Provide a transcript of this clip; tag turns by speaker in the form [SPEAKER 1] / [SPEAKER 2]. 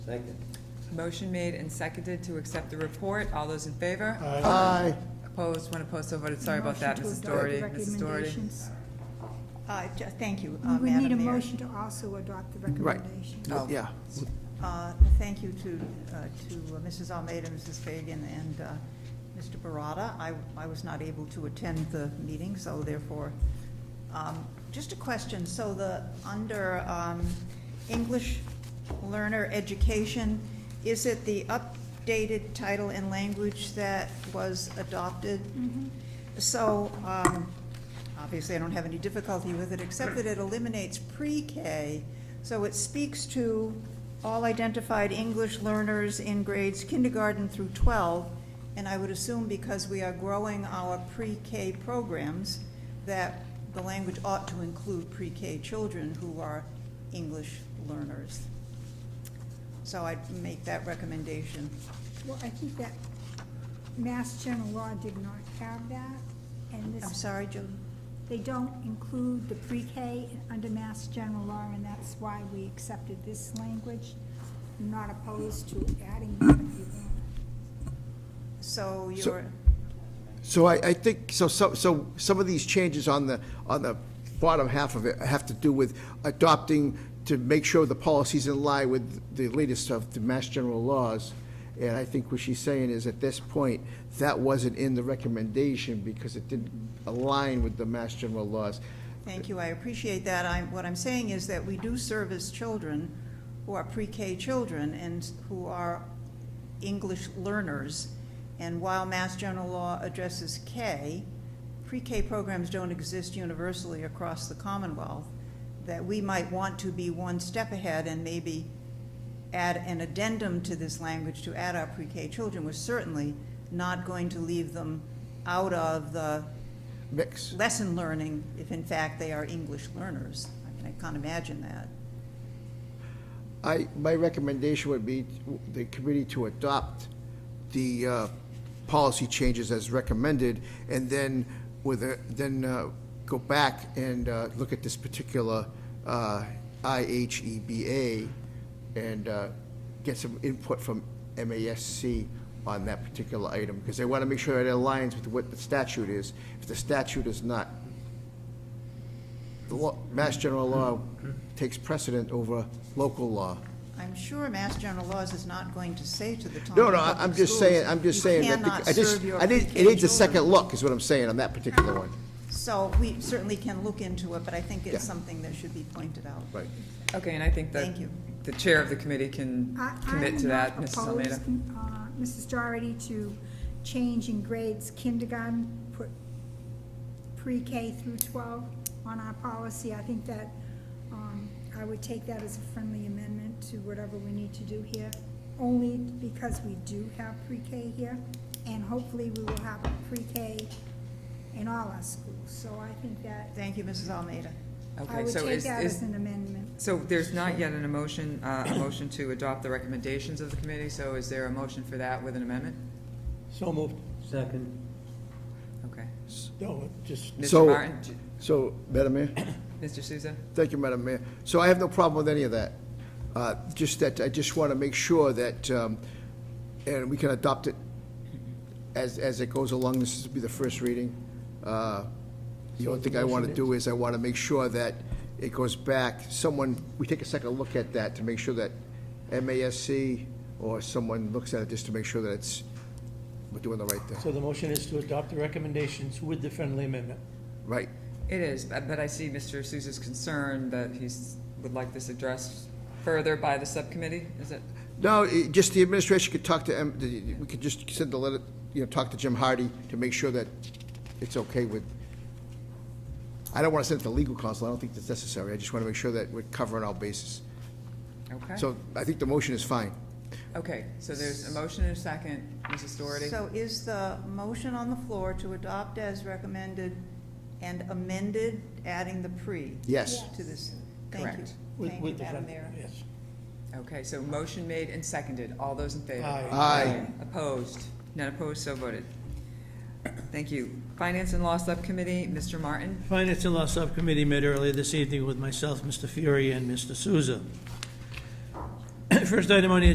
[SPEAKER 1] Second.
[SPEAKER 2] Motion made and seconded to accept the report. All those in favor?
[SPEAKER 3] Aye.
[SPEAKER 2] Opposed? One opposed, so voted. Sorry about that,
[SPEAKER 4] Motion
[SPEAKER 2] Mrs.
[SPEAKER 4] to adopt
[SPEAKER 2] Doherty.
[SPEAKER 4] the
[SPEAKER 2] Mrs. Doherty?
[SPEAKER 4] recommendations.
[SPEAKER 5] Uh, ju- Thank you, uh,
[SPEAKER 4] We would need a
[SPEAKER 5] Madam Mayor.
[SPEAKER 4] motion to also adopt the recommendations.
[SPEAKER 2] Oh.
[SPEAKER 3] Yeah.
[SPEAKER 5] Uh, Thank you to, uh, to uh, Mrs. Almeida, Mrs. Fagan, and uh, Mr. Barata. I, I was not able to attend the meeting, so therefore, um, just a question. So the, under um, English learner education, is it the updated title and language that was adopted?
[SPEAKER 4] Mm-hmm.
[SPEAKER 5] So, um, obviously, I don't have any difficulty with it, except that it eliminates pre-K. So it speaks to all identified English learners in grades kindergarten through 12. And I would assume because we are growing our pre-K programs, that the language ought to include pre-K children who are English learners. So I'd make that recommendation.
[SPEAKER 4] Well, I think that Mass General Law did not have that, and
[SPEAKER 5] I'm
[SPEAKER 4] this,
[SPEAKER 5] sorry, Joe.
[SPEAKER 4] they don't include the pre-K under Mass General Law, and that's why we accepted this language. I'm Not opposed to adding that if you want.
[SPEAKER 5] So
[SPEAKER 3] So-
[SPEAKER 5] you're,
[SPEAKER 3] So I, I think, so, so, so some of these changes on the, on the bottom half of it have to do with adopting to make sure the policies in line with the latest of the Mass General laws. And I think what she's saying is, at this point, that wasn't in the recommendation because it didn't align with the Mass General laws.
[SPEAKER 5] Thank you, I appreciate that. I'm, what I'm saying is that we do service children who are pre-K children and who are English learners. And while Mass General Law addresses K, pre-K programs don't exist universally across the Commonwealth, that we might want to be one step ahead and maybe add an addendum to this language to add our pre-K children. We're certainly not going to leave them out of the
[SPEAKER 3] Mix.
[SPEAKER 5] lesson learning if in fact they are English learners. I mean, I can't imagine that.
[SPEAKER 3] I, my recommendation would be the committee to adopt the uh, policy changes as recommended, and then with, a- then uh, go back and uh, look at this particular uh, IHEBA and uh, get some input from MASC on that particular item, because they want to make sure it aligns with what the statute is. If the statute is not, the law, Mass General law takes precedent over local law.
[SPEAKER 5] I'm sure Mass General Laws is not going to say to the Taunton
[SPEAKER 3] No, no, I-
[SPEAKER 5] Um, Public
[SPEAKER 3] I'm just
[SPEAKER 5] Schools,
[SPEAKER 3] saying, I'm just saying that,
[SPEAKER 5] You cannot
[SPEAKER 3] the- I just,
[SPEAKER 5] serve your
[SPEAKER 3] I need,
[SPEAKER 5] pre-K
[SPEAKER 3] it needs a
[SPEAKER 5] children."
[SPEAKER 3] second look, is what I'm saying on that particular one.
[SPEAKER 5] So we certainly can look into it, but I think
[SPEAKER 3] Yeah.
[SPEAKER 5] it's something that should be pointed out.
[SPEAKER 3] Right.
[SPEAKER 2] Okay, and I think that
[SPEAKER 5] Thank you.
[SPEAKER 2] the chair of the committee can
[SPEAKER 4] I-
[SPEAKER 2] commit to that, Mrs. Almeida.
[SPEAKER 4] I'm not opposed, uh, Mrs. Doherty, to changing grades kindergarten, put pre-K through 12 on our policy. I think that um, I would take that as a friendly amendment to whatever we need to do here, only because we do have pre-K here, and hopefully we will have pre-K in all our schools. So I think that,
[SPEAKER 5] Thank you, Mrs. Almeida.
[SPEAKER 4] I
[SPEAKER 2] Okay,
[SPEAKER 4] would
[SPEAKER 2] so
[SPEAKER 4] take
[SPEAKER 2] is,
[SPEAKER 4] that as
[SPEAKER 2] is,
[SPEAKER 4] an amendment.
[SPEAKER 2] so there's not yet an emotion, uh, a motion to adopt the recommendations of the committee, so is there a motion for that with an amendment?
[SPEAKER 6] So moved.
[SPEAKER 1] Second.
[SPEAKER 2] Okay.
[SPEAKER 6] No, it just,
[SPEAKER 2] Mr.
[SPEAKER 3] So-
[SPEAKER 2] Martin, j-
[SPEAKER 3] So, Madam Mayor?
[SPEAKER 2] Mr. Souza?
[SPEAKER 3] Thank you, Madam Mayor. So I have no problem with any of that. Uh, Just that, I just want to make sure that, um, and we can adopt it as, as it goes along. This will be the first reading. Uh, The only thing I want to do is I want to make sure that it goes back, someone, we take a second look at that to make sure that MASC or someone looks at it just to make sure that it's, we're doing the right thing.
[SPEAKER 6] so the motion is to adopt the recommendations with the friendly amendment.
[SPEAKER 3] Right.
[SPEAKER 2] It is, but but I see Mr. Souza's concern that he's, would like this addressed further by the subcommittee, is it?
[SPEAKER 3] No, it- just the administration could talk to, em- the- we could just send the letter, you know, talk to Jim Hardy to make sure that it's okay with, I don't want to send it to legal counsel, I don't think that's necessary, I just want to make sure that we're covering all bases.
[SPEAKER 2] Okay.
[SPEAKER 3] So I think the motion is fine.
[SPEAKER 2] Okay, so there's a motion and a second, Mrs. Doherty?
[SPEAKER 5] So is the motion on the floor to adopt as recommended and amended, adding the pre
[SPEAKER 3] Yes.
[SPEAKER 5] to this? Thank you.
[SPEAKER 2] Correct.
[SPEAKER 6] with-
[SPEAKER 5] Thank you,
[SPEAKER 6] with the
[SPEAKER 5] Madam
[SPEAKER 6] friend-
[SPEAKER 5] Mayor.
[SPEAKER 6] Yes.
[SPEAKER 2] Okay, so motion made and seconded. All those in favor?
[SPEAKER 6] Aye.
[SPEAKER 3] Aye.
[SPEAKER 2] Opposed? None opposed, so voted. Thank you. Finance and Law Subcommittee, Mr. Martin?
[SPEAKER 6] Finance and Law Subcommittee met earlier this evening with myself, Mr. Fury, and Mr. Souza. First item on the